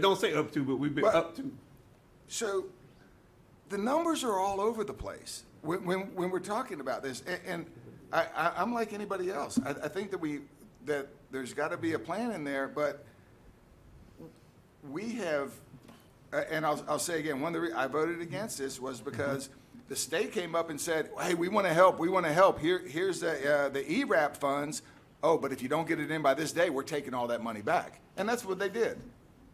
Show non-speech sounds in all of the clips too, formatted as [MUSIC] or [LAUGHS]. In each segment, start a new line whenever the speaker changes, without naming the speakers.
It don't say up to, but we've been
But-
up to.
So the numbers are all over the place when, when, when we're talking about this. And, and I, I, I'm like anybody else. I, I think that we, that there's got to be a plan in there, but we have, a- and I'll, I'll say again, one of the, re- I voted against this was because the state came up and said, hey, we want to help, we want to help. Here, here's the, uh, the ERAP funds. Oh, but if you don't get it in by this day, we're taking all that money back. And that's what they did.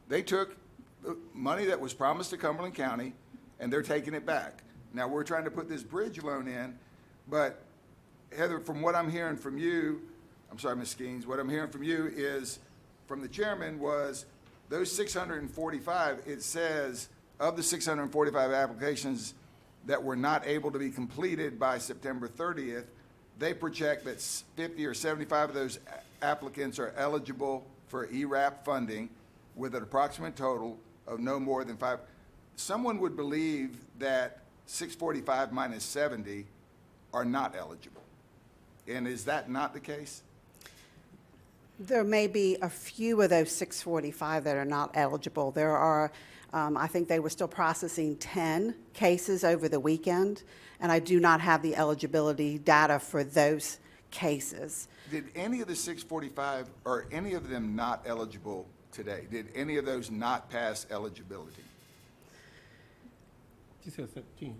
They took the money that was promised to Cumberland County and they're taking it back. Now, we're trying to put this bridge loan in, but Heather, from what I'm hearing from you, I'm sorry, Ms. Skeens, what I'm hearing from you is, from the chairman, was those six hundred and forty-five, it says, of the six hundred and forty-five applications that were not able to be completed by September thirtieth, they project that s- fifty or seventy-five of those a- applicants are eligible for E ERAP funding with an approximate total of no more than five. Someone would believe that six forty-five minus seventy are not eligible. And is that not the case?
There may be a few of those 645 that are not eligible. There are, um, I think they were still processing 10 cases over the weekend, and I do not have the eligibility data for those cases.
Did any of the 645, are any of them not eligible today? Did any of those not pass eligibility?
She said seventeen.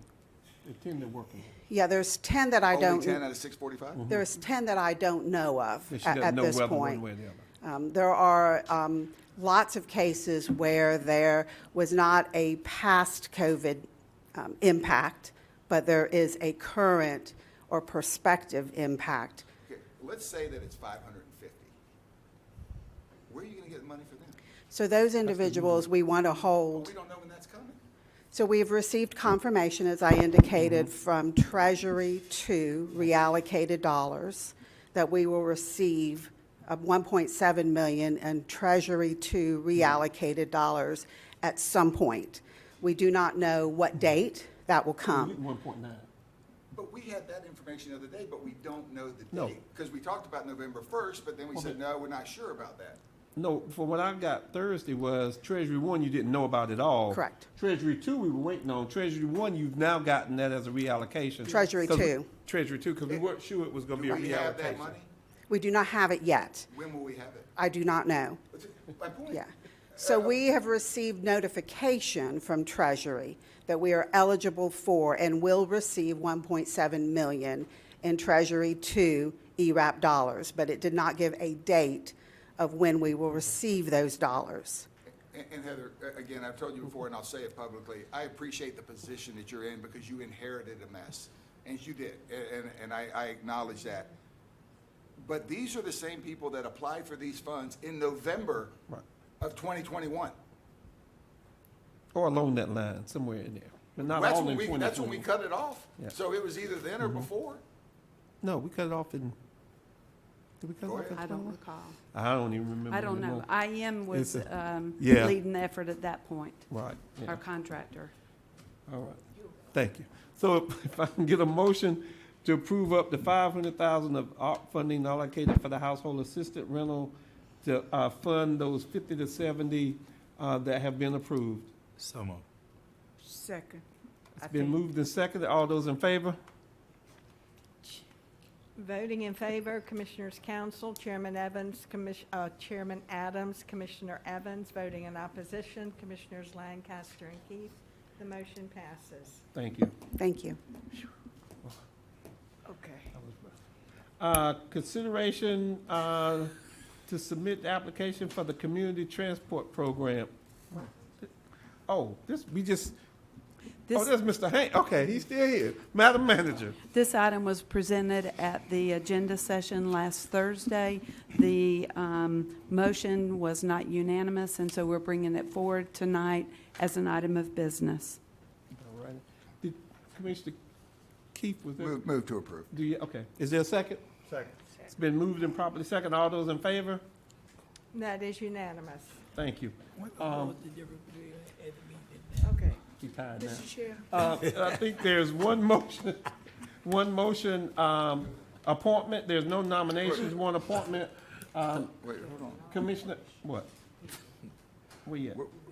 The ten they're working.
Yeah, there's 10 that I
Only 10 out
don't, Mm-hmm.
of 645?
there's 10 that I don't know of
She
at
doesn't
at
know
this
whether one
point.
way or the other.
Um, There are um, lots of cases where there was not a past COVID um, impact, but there is a current or prospective impact.
Okay, Let's say that it's 550. Where are you going to get the money for them?
So those individuals, we want to
Well,
hold.
we don't know when that's coming.
So we've received confirmation, as I indicated, from Treasury to reallocated dollars that we will receive uh, 1.7 million and Treasury to reallocated dollars at some point. We do not know what date that will come.
One point nine.
But we had that information the other day, but we don't know the
No. Mm-hmm.
date. Because we talked about November 1st, but then we said, no, we're not sure about that.
No, for what I got Thursday was Treasury One, you didn't know about at all.
Correct.
Treasury Two, we were waiting on. Treasury One, you've now gotten that as a reallocation.
Treasury
'Cause we-
Two.
Treasury Two, because we weren't sure it was gonna be
Do
a
we have that
reallocation.
money?
We do not have it yet.
When will we have it?
I do not know.
My point.
Yeah. So we have received notification from Treasury that we are eligible for and will receive 1.7 million in Treasury to E ERAP dollars, but it did not give a date of when we will receive those dollars.
And- And Heather, a- again, I've told you before, and I'll say it publicly, I appreciate the position that you're in because you inherited a mess, and you did, a- and, and I, I acknowledge that. But these are the same people that applied for these funds in November
Right.
of 2021.
Or along that line, somewhere in there, but not
That's
all
when
in
we,
twenty
that's when we
twenty.
cut it off.
Yeah. Mm-hmm.
So it was either then or before.
No, we cut it off in, did we cut it
Go
off
ahead.
in
I don't
21?
recall.
I don't even remember.
I don't know.
anymore.
IM was
It's a-
um,
Yeah.
leading the effort at that point,
Right, yeah. Oh,
our contractor.
All right, thank you. So [LAUGHS] if- if I can get a motion to approve up to five hundred thousand of ARP funding allocated for the household assistant rental to, uh, fund those fifty to seventy, uh, that have been approved.
So moved.
Second.
It's been moved and seconded. All those in favor?
Voting in favor, Commissioners Council, Chairman Evans, Commis- uh, Chairman Adams, Commissioner Evans. Voting in opposition, Commissioners Lancaster and Keith. The motion passes.
Thank you.
Thank you.
Okay.
Uh, consideration, uh, to submit the application for the community transport program. Oh, this, we just, oh,
This,
that's Mr. Hank. Okay, he's still here. Madam Manager.
this item was presented at the agenda session last Thursday. The um, motion was not unanimous, and so we're bringing it forward tonight as an item of business.
All right. Did Commissioner Keith, was there,
Move, move to approve.
do you, okay. Is there a second?
Second.
It's been moved and properly second. All those in favor?
That is unanimous.
Thank you. Um,
Okay.
You tired now.
Chair.
Uh, I think there's one motion, one motion, um, appointment. There's no nominations, one appointment. Um,
Wait, hold on.
Commissioner, what? Where you at?
We're,